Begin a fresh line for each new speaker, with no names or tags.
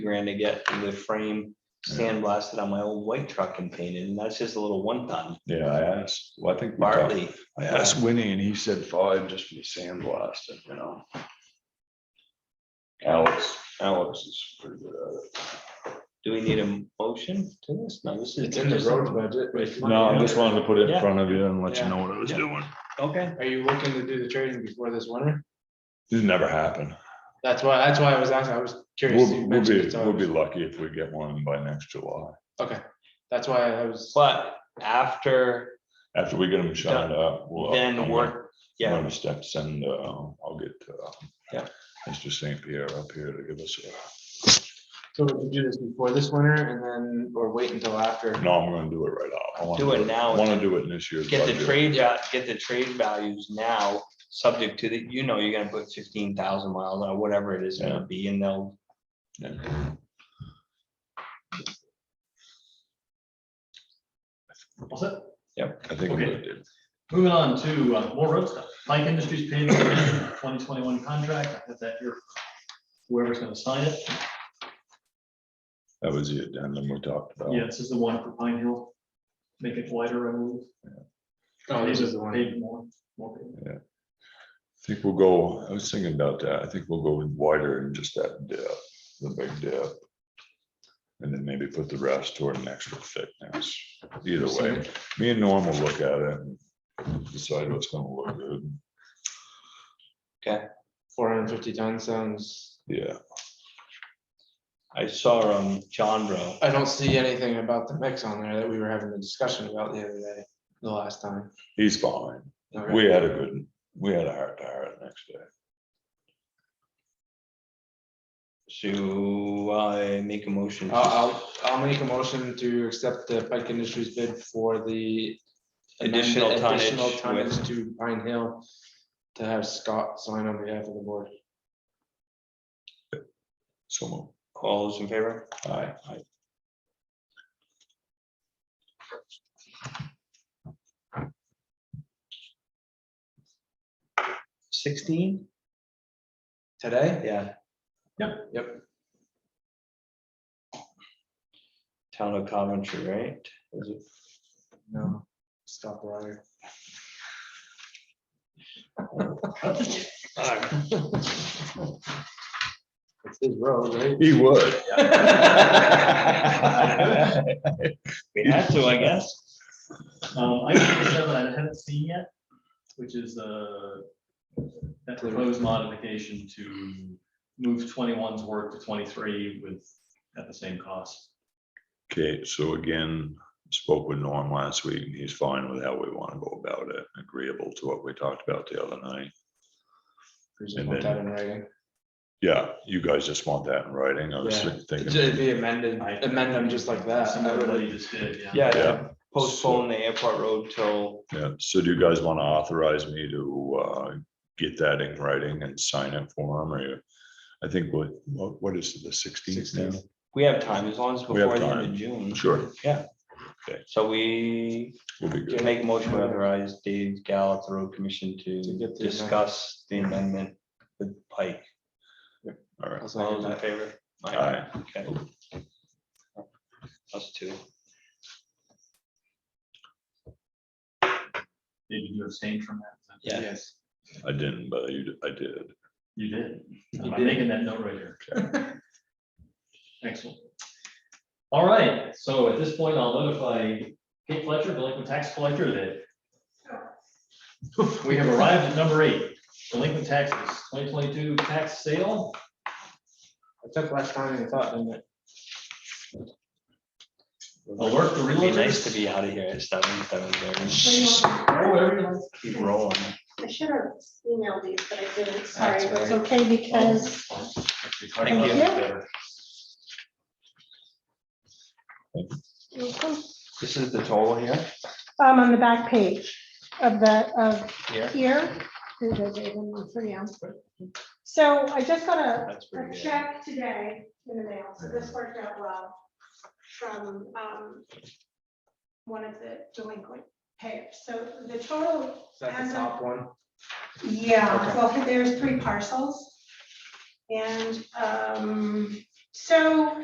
grand to get the frame sandblasted on my old white truck and painted, and that's just a little one ton,
Yeah, I asked, well, I think we talked-
bartley.
I asked Winnie and he said five just for the sandblast, and, you know. Alex, Alex is pretty good at it.
Do we need a motion to this? No, this is.
It's in the road budget. it's money.
No, I just wanted to put it in
Yeah.
front of you and let you
Yeah.
know what I was
Yeah.
doing.
Okay,
Are you looking to do the trading before this winter?
This never happened.
That's why, that's why I was asking, I was curious.
We'll,
You
we'll
mentioned
be,
it's
we'll be
always-
lucky if we get one by next July,
Okay, that's why I was,
but after
after we get them shined up. we'll-
then
I'm
work,
gonna- I'm
yeah,
gonna step send, uh, I'll get, uh,
Yeah.
Mr. St. Pierre up here to give us, a-
so we could do this before this winter and then, or wait until after.
no, I'm gonna do it right off. I wanna
Do it now.
Wanna do it in this year's
get the
budget.
trade, out- get the trade values now, subject to the, you know, you're gonna put fifteen thousand miles or whatever it is gonna be, and they'll.
Yeah.
What's that?
I think. we
Okay.
did.
Moving on to uh, more road stuff. Pike Industries paving twenty twenty-one contract. I have that here. Whoever's gonna sign it.
That was the addendum we talked about.
Yeah, this is the one for Pine Hill. Make it wider, I believe.
Oh, this is the one.
Pave more, more pavement.
I think we'll go, I was thinking about that. I think we'll go with wider and just that dip, the big dip. And then maybe put the rest toward an extra thickness. Either way, me and Norm will look at it and decide what's gonna look good.
Four hundred and fifty ton sounds,
Yeah,
I saw um Chandra,
I don't see anything about the mix on there that we were having a discussion about the other day, the last time.
he's fine.
Okay.
We had a good, we had a heart to heart the next day.
so I make a motion. to-
I'll, I'll, I'll make a motion to accept the Pike Industries bid for the.
Additional
amendment-
tonnage
additional
with-
tonnage To Pine Hill, to have Scott sign on behalf of the board.
So, moved.
All those in favor?
aye,
Sixteen?
Today?
Yeah.
Yep.
Yep.
Town of Coventry, right? Is it-
No, stop right. It's his road, right?
he would.
We have to, I guess.
Um, item number seven, I haven't seen yet, which is, uh, that proposed modification to move 21's work to twenty-three with, at the same cost.
Okay, so again, spoke with Norm last week, and he's fine with how we want to go about it, agreeable to what we talked about the other night.
Just
And
put
then-
that in writing.
Yeah, you guys just want that in writing, I was
Yeah. It'd
thinking,
be amended, amend them just like that. I
Similar to what
would-
you just did, yeah.
Yeah,
Yeah.
to postpone the airport road till,
yeah, so do you guys want to authorize me to uh, get that in writing and sign it for him, or you? I think what, what what is it, the sixteenth now?
we have time, as long as
We have
before the end
time.
of June.
Sure,
So we
we'll be
can
good,
make a motion to authorize Dave Gal at the road commission to
To get the amendment.
discuss the amendment with Pike.
all right.
I'll
All
second
those in
that.
favor?
Aye.
Okay. Us two.
Did you abstain from that?
Yeah.
Yes.
I didn't, but you, I did.
You did.
You
I'm
did.
making that note right here. Excellent. All right, so at this point, I'll notify Kate Fletcher, delinquent tax collector, that we have arrived at number eight, delinquent taxes, twenty twenty-two tax sale.
I took less time than I thought, didn't it?
Alert the
It'd be nice to
realtors.
be out of here at seven, seven thirty.
Or whatever you like.
Keep rolling.
I should have emailed these, but I didn't, sorry,
That's
it's
all
okay because
Thank
you. um,
This is the total here?
on the back page of the, of
Here.
here. Here it is, I didn't look for you. So I just got a,
That's where
a
you get-
check today in the mail, so this worked out well from, um, one of the delinquent payers. So the total
Is that the top one?
Yeah,
Okay.
well, there's three parcels. And um, So